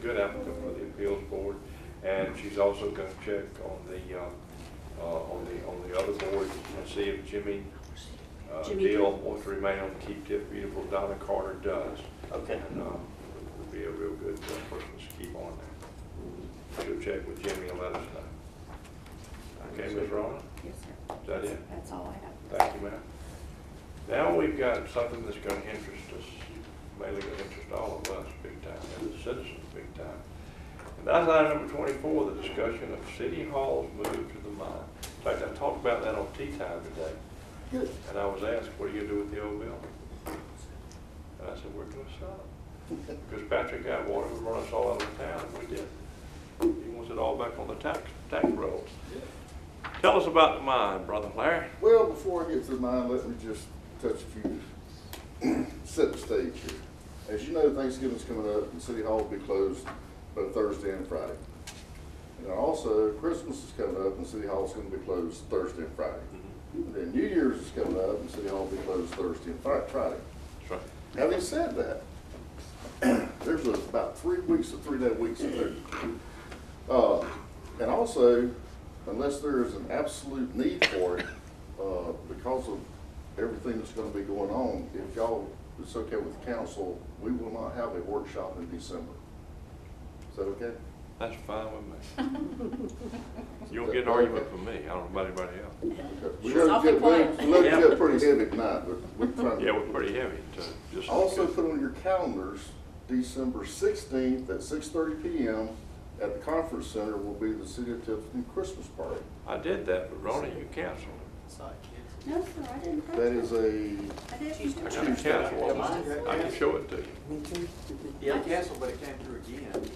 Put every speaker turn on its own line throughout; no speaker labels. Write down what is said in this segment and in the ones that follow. good applicant for the appeals board, and she's also gonna check on the, uh, uh, on the, on the other board and see if Jimmy uh,
Jimmy
Deal
Deal.
wants to remain on Keep Tiff Beautiful, Donna Carter does.
Okay.
And, uh, would be a real good uh, person to keep on there. She'll check with Jimmy and let us know. Okay, Ms. Rowland?
Yes, sir.
Is that it?
That's all I have.
Thank you, ma'am. Now we've got something that's gonna interest us, mainly gonna interest all of us big time, and the citizens big time. And that's item number twenty-four, the discussion of city halls move to the mine. In fact, I talked about that on tea time today, and I was asked, what are you gonna do with the old building? And I said, we're gonna sell it. Because Patrick got wanted to run us all out of town, and we did. He wants it all back on the tax, tax rolls. Tell us about the mine, brother Larry.
Well, before I get to mine, let me just touch a few, set the stage here. As you know, Thanksgiving's coming up, and City Hall will be closed both Thursday and Friday. And also, Christmas is coming up, and City Hall's gonna be closed Thursday and Friday. And Then New Year's is coming up, and City Hall will be closed Thursday and Fri- Friday.
That's right.
Having said that, there's about three weeks or three-day weeks in there. Uh, And also, unless there is an absolute need for it, uh, because of everything that's gonna be going on, if y'all, it's okay with council, we will not have a workshop in December. Is that okay?
That's fine with me. You'll get an argument from me, I don't know about anybody else.
Okay. We
She's
let it
awfully
get-
quiet.
We let it
Yeah.
get pretty heavy tonight, but we're trying to.
Yeah, we're pretty heavy, so just.
Also put on your calendars, December sixteenth at six thirty PM at the conference center will be the City of Tifton Christmas party.
I did that, but Ronnie, you canceled it.
It's not kids.
No, sir, I didn't. have
That
to.
is a,
I didn't.
I got it canceled. I can show it to you.
Yeah, it canceled, but it came through again.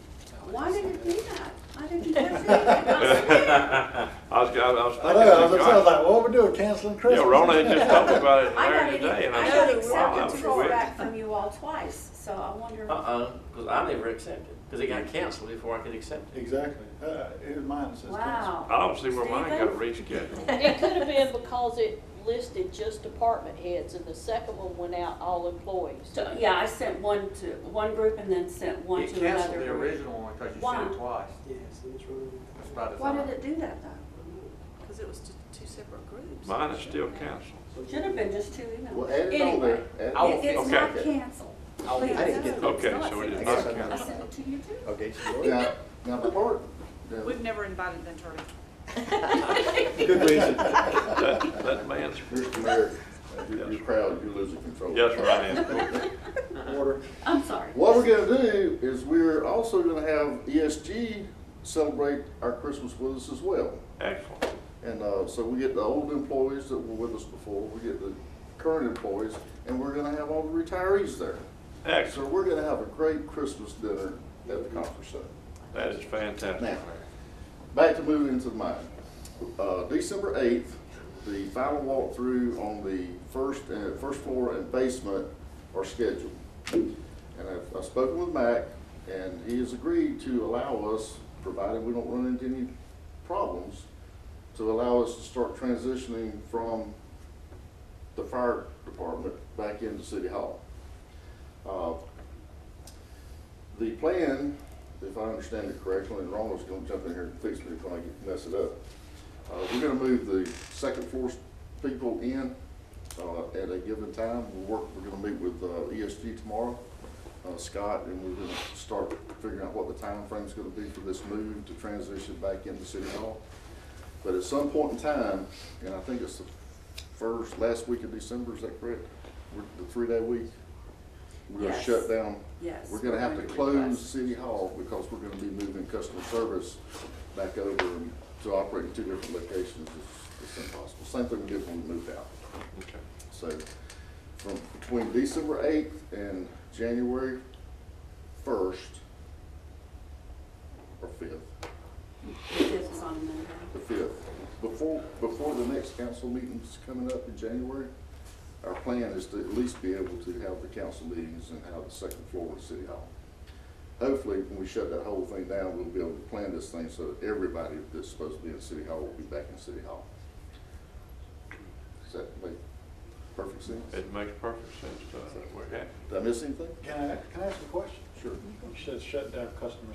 Why did it do that? I didn't touch it.
I was, I was
I know, I
thinking.
was, I was like, what we doing, canceling
Yeah,
Christmas?
Ronnie just talked about it
I got
there
it,
today, and
I
I
got
said, wow, that
acceptance
was
call
quick.
back from you all twice, so I wonder.
Uh-uh, because I never accepted, because it got canceled before I could accept it.
Exactly, uh, it was mine that says canceled.
Wow.
I don't see where mine got
Stephen?
rescheduled.
It could have been because it listed just department heads, and the second one went out all employees.
So, yeah, I sent one to one group and then sent one
It
to
canceled
another
the
group.
original one because you
Why?
sent it twice.
Yes, it is running.
That's by
Why
design.
did it do that though?
Because it was t- two separate groups.
Mine is still canceled.
Should have been just two
well,
emails.
add it on
Anyway,
there. Add-
I'll-
it- it's
Okay.
not canceled.
I'll-
Please.
I didn't get
No, it's
Okay,
not.
so it is
It's
not
separate.
I
canceled.
sent it to you too.
Okay,
Now, now the part, now,
We've never invited an attorney.
Good reason.
That, that man's,
Mr. Mayor,
Yes,
you're,
sir.
you're proud, you're losing control.
yes, right.
Order.
I'm sorry.
What we're gonna do is we're also gonna have ESG celebrate our Christmas with us as well.
Excellent.
And uh, so we get the old employees that were with us before, we get the current employees, and we're gonna have all the retirees there. So
Excellent.
we're gonna have a great Christmas dinner at the conference center.
That is fantastic.
Now.
Larry.
Back to moving into mine. Uh, December eighth, the final walkthrough on the first, uh, first floor and basement are scheduled. And I've, I've spoken with Mac, and he has agreed to allow us, provided we don't run into any problems, to allow us to start transitioning from the fire department back into City Hall. Uh, The plan, if I understand it correctly, and Ronald's gonna jump in here and fix me if I get- mess it up. Uh, we're gonna move the second floor s- people in, uh, at a given time. We'll work, we're gonna meet with, uh, ESG tomorrow, uh, Scott, and we're gonna start figuring out what the time frame's gonna be for this move to transition back into City Hall. But at some point in time, and I think it's the first, last week of December, is that correct? We're- The three-day week? We're gonna
Yes.
shut down
Yes.
we're gonna have to
request.
close City Hall because we're gonna be moving customer service back over and to operate in two different locations. It's, it's impossible. Same thing we did when we moved out.
Okay.
So from between December eighth and January first, or fifth,
This is on Monday.
the fifth, before, before the next council meeting's coming up in January, our plan is to at least be able to have the council meetings and have the second floor of City Hall. Hopefully, when we shut that whole thing down, we'll be able to plan this thing so that everybody that's supposed to be in City Hall will be back in City Hall. Does that make perfect sense? Did
It makes perfect sense to us. We're happy.
I miss anything?
Can I, can I ask a question?
Sure.
You said shut down customer